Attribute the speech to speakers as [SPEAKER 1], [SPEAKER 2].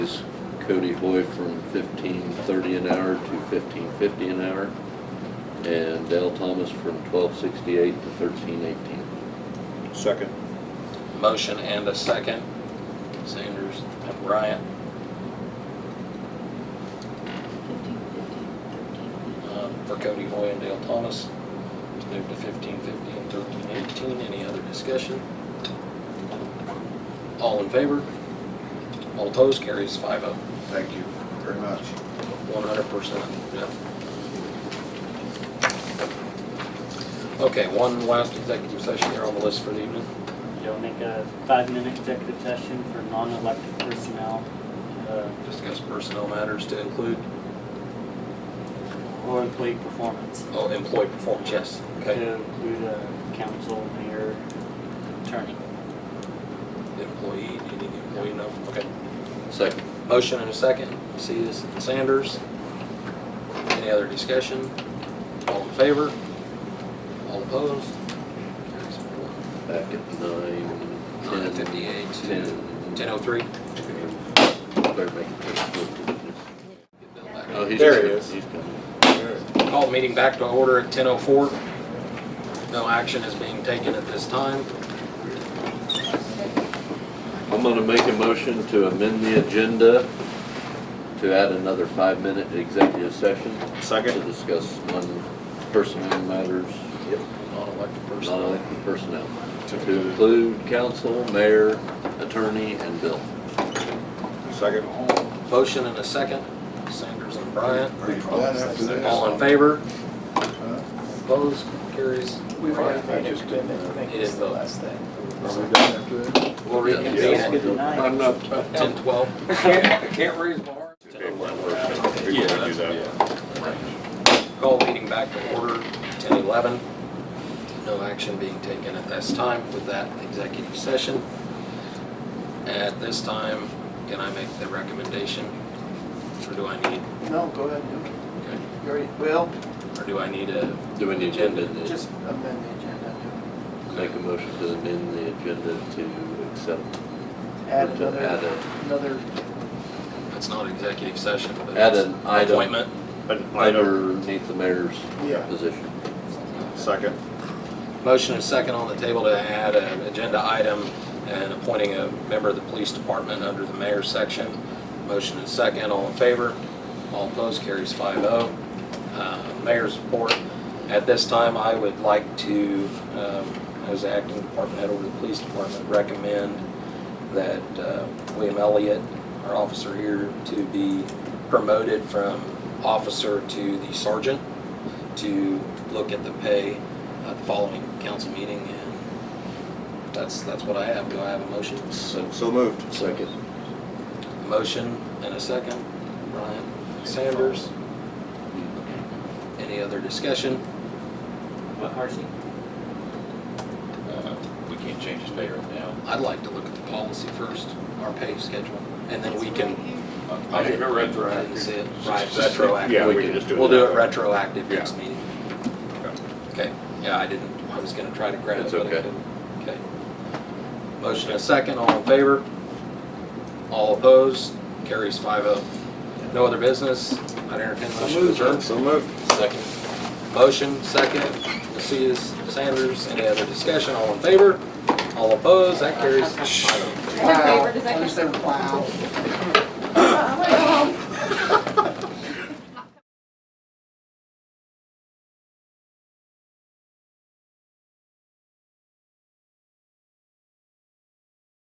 [SPEAKER 1] Cody Hoy from fifteen thirty an hour to fifteen fifty an hour, and Dale Thomas from twelve sixty-eight to thirteen eighteen.
[SPEAKER 2] Second.
[SPEAKER 3] Motion and a second. Sanders and Bryant.
[SPEAKER 4] Fifteen, fifteen, thirteen.
[SPEAKER 3] um, for Cody Hoy and Dale Thomas to move to fifteen fifty and thirteen eighteen. Any other discussion? All in favor? All opposed? Carries five oh,
[SPEAKER 2] Thank you very much.
[SPEAKER 3] one hundred percent. Okay, one last executive session here on the list for the evening.
[SPEAKER 5] You'll make a five-minute executive session for non-elected personnel, uh,
[SPEAKER 3] Discuss personnel matters to include,
[SPEAKER 5] or employee performance.
[SPEAKER 3] oh, employee performance, yes. Okay,
[SPEAKER 5] To include uh council, mayor, attorney.
[SPEAKER 3] employee, any employee, no, okay.
[SPEAKER 1] Second.
[SPEAKER 3] Motion and a second. See this, Sanders. Any other discussion? All in favor? All opposed? Carries four.
[SPEAKER 1] Back at nine,
[SPEAKER 3] Nine
[SPEAKER 1] ten,
[SPEAKER 3] fifty-eight to ten
[SPEAKER 1] ten.
[SPEAKER 3] oh three.
[SPEAKER 1] Better make it ten. Oh, he's
[SPEAKER 2] There he
[SPEAKER 1] coming.
[SPEAKER 2] is.
[SPEAKER 1] He's coming.
[SPEAKER 3] Call the meeting back to order at ten oh four. No action is being taken at this time.
[SPEAKER 1] I'm gonna make a motion to amend the agenda to add another five-minute executive session to
[SPEAKER 2] Second.
[SPEAKER 1] discuss non-personnel matters,
[SPEAKER 3] Non-elected personnel.
[SPEAKER 1] non-elected personnel, to include council, mayor, attorney, and bill.
[SPEAKER 2] Second.
[SPEAKER 3] Motion and a second. Sanders and Bryant.
[SPEAKER 6] Are you glad after this?
[SPEAKER 3] All in favor?
[SPEAKER 6] Huh?
[SPEAKER 3] Opposed? Carries.
[SPEAKER 7] We've already
[SPEAKER 2] I
[SPEAKER 7] made a
[SPEAKER 2] just
[SPEAKER 7] commitment to make
[SPEAKER 3] It
[SPEAKER 7] this
[SPEAKER 3] is
[SPEAKER 7] the
[SPEAKER 3] the-
[SPEAKER 7] last thing.
[SPEAKER 6] Are we done after this?
[SPEAKER 3] We'll reconvene at
[SPEAKER 5] Good night.
[SPEAKER 1] I'm not.
[SPEAKER 3] ten twelve. Can't raise bar.
[SPEAKER 2] Before we do that.
[SPEAKER 3] Call meeting back to order, ten eleven. No action being taken at this time with that executive session. At this time, can I make the recommendation? Or do I need,
[SPEAKER 7] No, go ahead. you-
[SPEAKER 3] okay,
[SPEAKER 7] you already- Well,
[SPEAKER 3] or do I need a,
[SPEAKER 1] Do we need to amend it?
[SPEAKER 7] just amend the agenda.
[SPEAKER 1] make a motion to amend the agenda to accept,
[SPEAKER 7] Add
[SPEAKER 1] to add
[SPEAKER 7] another,
[SPEAKER 1] a,
[SPEAKER 7] another,
[SPEAKER 3] it's not executive session, but
[SPEAKER 1] add
[SPEAKER 3] it's
[SPEAKER 1] an item
[SPEAKER 3] appointment?
[SPEAKER 2] An item.
[SPEAKER 1] underneath the mayor's
[SPEAKER 7] Yeah.
[SPEAKER 1] position.
[SPEAKER 2] Second.
[SPEAKER 3] Motion and second on the table to add an agenda item and appointing a member of the police department under the mayor's section. Motion and second, all in favor? All opposed, carries 5-0. Uh, Mayor's report. At this time, I would like to, um, as the acting department head over the police department, recommend that uh, William Elliott, our officer here, to be promoted from officer to the sergeant to look at the pay at the following council meeting, and that's, that's what I have. Do I have a motion?
[SPEAKER 2] So moved.
[SPEAKER 1] Second.
[SPEAKER 3] Motion and a second. Ryan Sanders. Any other discussion?
[SPEAKER 5] What, Marcy?
[SPEAKER 8] Uh, We can't change his pay right now.
[SPEAKER 3] I'd like to look at the policy first, our pay schedule, and then we can.
[SPEAKER 8] I think we're
[SPEAKER 3] I didn't see
[SPEAKER 8] retroactive.
[SPEAKER 3] it. Right, retroactive.
[SPEAKER 2] Yeah, we can just do it.
[SPEAKER 3] We'll do
[SPEAKER 2] that
[SPEAKER 3] it
[SPEAKER 2] way.
[SPEAKER 3] retroactive next meeting. Okay, yeah, I didn't, I was gonna try to grab it.
[SPEAKER 1] It's
[SPEAKER 3] but I
[SPEAKER 1] okay.
[SPEAKER 3] couldn't. Okay. Motion and a second, all in favor? All opposed? Carries five oh. No other business? I entertain a motion to adjourn.
[SPEAKER 2] So moved.
[SPEAKER 3] Second. Motion, second. Messias, Sanders, any other discussion? All in favor? All opposed? That carries five oh.
[SPEAKER 4] All in favor, does that
[SPEAKER 7] Wow. I just said, wow.